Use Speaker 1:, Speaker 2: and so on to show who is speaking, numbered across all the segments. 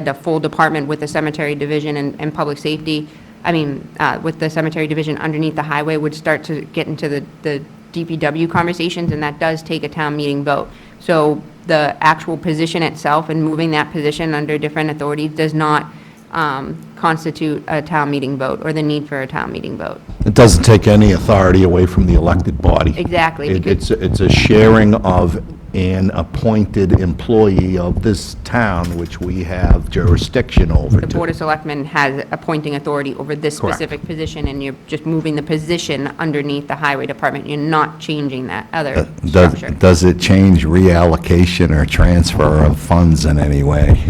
Speaker 1: had a full department with the cemetery division and, and public safety, I mean, uh, with the cemetery division underneath the highway would start to get into the, the DPW conversations, and that does take a town meeting vote. So the actual position itself and moving that position under different authorities does not, um, constitute a town meeting vote or the need for a town meeting vote.
Speaker 2: It doesn't take any authority away from the elected body.
Speaker 1: Exactly,
Speaker 2: It-
Speaker 1: because-
Speaker 2: It's, it's a sharing of an appointed employee of this town, which we have jurisdiction over
Speaker 1: The
Speaker 2: to.
Speaker 1: Board of Selectmen has appointing authority over this
Speaker 2: Correct.
Speaker 1: specific position, and you're just moving the position underneath the highway department. You're not changing that other
Speaker 3: Does,
Speaker 1: structure.
Speaker 3: does it change reallocation or transfer of funds in any way?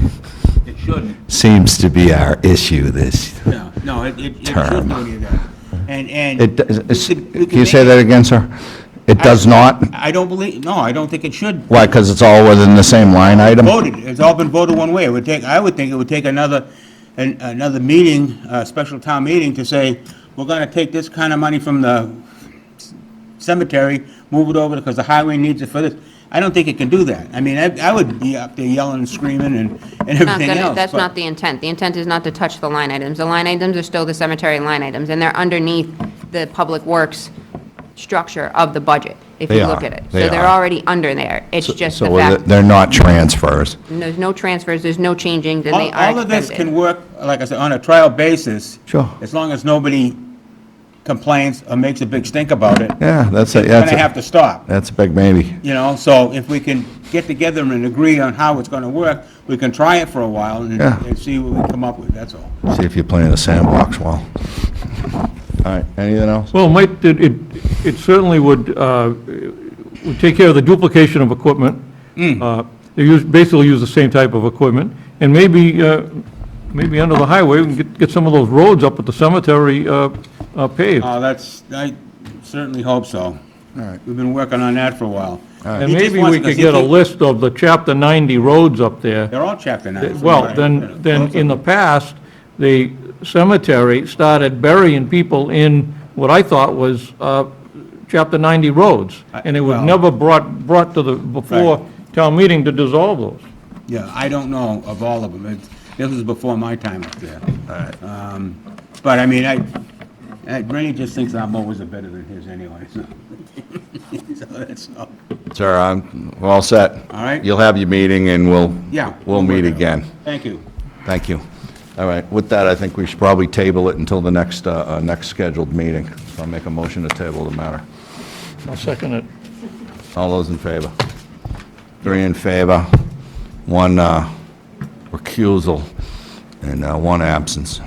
Speaker 4: It shouldn't,
Speaker 3: Seems to be our issue this,
Speaker 4: no, no, it, it it
Speaker 3: Term.
Speaker 4: shouldn't do any of that. And, and.
Speaker 3: it, does-
Speaker 4: we could- we
Speaker 3: can
Speaker 4: could
Speaker 3: you say
Speaker 4: make-
Speaker 3: that again, sir? It does not?
Speaker 4: I don't believe, no, I don't think it should.
Speaker 3: Why, because it's all within the same line item?
Speaker 4: Voted, it's all been voted one way. It would take, I would think it would take another, an- another meeting, a special town meeting to say, we're gonna take this kind of money from the cemetery, move it over because the highway needs it for this. I don't think it can do that. I mean, I, I would be up there yelling and screaming and, and
Speaker 1: Not
Speaker 4: everything
Speaker 1: gonna-
Speaker 4: else.
Speaker 1: That's
Speaker 4: but-
Speaker 1: not the intent. The intent is not to touch the line items. The line items are still the cemetery line items, and they're underneath the public works structure of the budget, if
Speaker 3: They
Speaker 1: you look
Speaker 3: are.
Speaker 1: at it.
Speaker 3: They
Speaker 1: So they're
Speaker 3: are.
Speaker 1: already under there. It's just the
Speaker 3: So they're-
Speaker 1: fact,
Speaker 3: they're not transfers.
Speaker 1: and there's no transfers, there's no changing, and they
Speaker 4: All,
Speaker 1: are
Speaker 4: all of this can
Speaker 1: expended.
Speaker 4: work, like I said, on a trial basis.
Speaker 3: Sure.
Speaker 4: As long as nobody complains or makes a big stink about it.
Speaker 3: Yeah, that's a,
Speaker 4: It's gonna
Speaker 3: that's
Speaker 4: have to
Speaker 3: a,
Speaker 4: stop,
Speaker 3: that's a big maybe.
Speaker 4: you know, so if we can get together and agree on how it's gonna work, we can try it for a while and,
Speaker 3: Yeah.
Speaker 4: and see what we come up with, that's all.
Speaker 3: See if you play in the sandbox well. All right, anything else?
Speaker 5: Well, might, it, it it certainly would, uh, would take care of the duplication of equipment. Uh, They use, basically use the same type of equipment, and maybe, uh, maybe under the highway, we can get, get some of those roads up at the cemetery uh, uh, paved.
Speaker 4: Oh, that's, I certainly hope so.
Speaker 3: All right.
Speaker 4: We've been working on that for a while.
Speaker 5: And maybe we could get a list of the chapter 90 roads up there.
Speaker 4: They're all chapter nine. from what
Speaker 5: Well,
Speaker 4: I-
Speaker 5: then, then in the past, the cemetery started burying people in what I thought was uh, Chapter 90 roads, and it was
Speaker 4: well-
Speaker 5: never brought, brought to the,
Speaker 4: Right.
Speaker 5: before town meeting to dissolve those.
Speaker 4: Yeah, I don't know of all of them. It's- This was before my time up there. Um, But I mean, I, I- Rennie just thinks our mowers are better than his anyway, so. So that's all.
Speaker 3: Sir, I'm, we're all set.
Speaker 4: All right.
Speaker 3: You'll have your meeting and we'll,
Speaker 4: Yeah.
Speaker 3: we'll meet
Speaker 4: work it out.
Speaker 3: again.
Speaker 4: Thank you.
Speaker 3: Thank you. All right, with that, I think we should probably table it until the next, uh, uh, next scheduled meeting. So I'll make a motion to table the matter.
Speaker 5: I'll second it.
Speaker 3: All those in favor? Three in favor, one uh, recusal, and uh, one absence.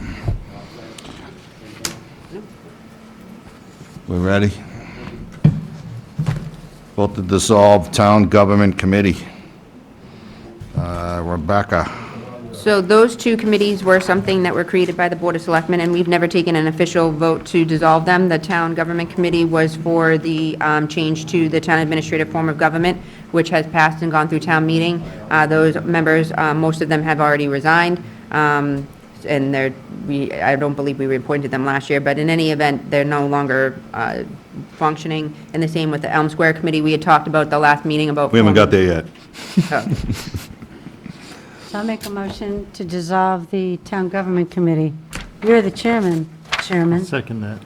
Speaker 3: We ready? Vote to dissolve Town Government Committee. Uh, Rebecca,
Speaker 1: So those two committees were something that were created by the Board of Selectmen, and we've never taken an official vote to dissolve them. The Town Government Committee was for the um, change to the town administrative form of government, which has passed and gone through town meeting. Uh, Those members, uh, most of them have already resigned, um, and they're, we, I don't believe we reappointed them last year, but in any event, they're no longer uh, functioning. And the same with the Elm Square Committee, we had talked about the last meeting about.
Speaker 2: We haven't got there yet.
Speaker 1: Oh.
Speaker 6: So I'll make a motion to dissolve the town government committee. You're the chairman, chairman.
Speaker 5: Second that.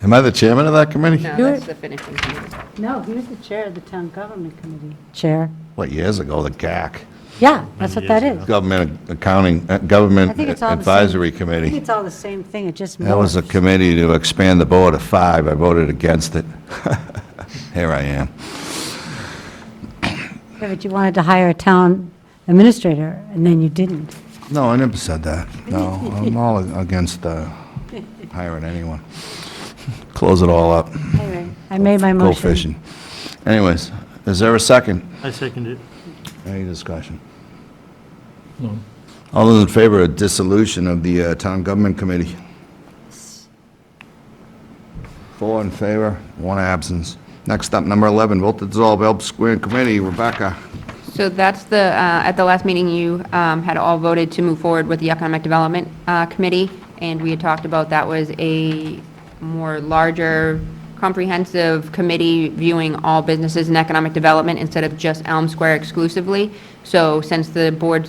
Speaker 3: am I the chairman of that committee?
Speaker 1: No,
Speaker 6: Do it.
Speaker 1: that's the finishing committee.
Speaker 6: No, he was the chair of the town government committee. Chair.
Speaker 3: What, years ago, the GAC,
Speaker 6: Yeah, that's what that is.
Speaker 3: Government Accounting, uh,
Speaker 6: I
Speaker 3: Government
Speaker 6: think it's all the same-
Speaker 3: Advisory
Speaker 6: I
Speaker 3: Committee.
Speaker 6: think it's all the same thing, it just
Speaker 3: That was a
Speaker 6: morphed.
Speaker 3: committee to expand the board to five. I voted against it. Here I am.
Speaker 6: Yeah, But you wanted to hire a town administrator, and then you didn't.
Speaker 3: No, I never said that. No, I'm all against uh, hiring anyone. Close it all up.
Speaker 6: Anyway, I made my
Speaker 3: Go
Speaker 6: motion.
Speaker 3: fishing. Anyways, is there a second?
Speaker 7: I second it.
Speaker 3: Any discussion? All those in favor of dissolution of the uh, Town Government Committee? Four in favor, one absence. Next up, number 11, vote to dissolve Elb Square Committee. Rebecca.
Speaker 1: So that's the, uh, at the last meeting, you um, had all voted to move forward with the Economic Development uh, Committee, and we had talked about that was a more larger, comprehensive committee viewing all businesses and economic development instead of just Elm Square exclusively. So since the board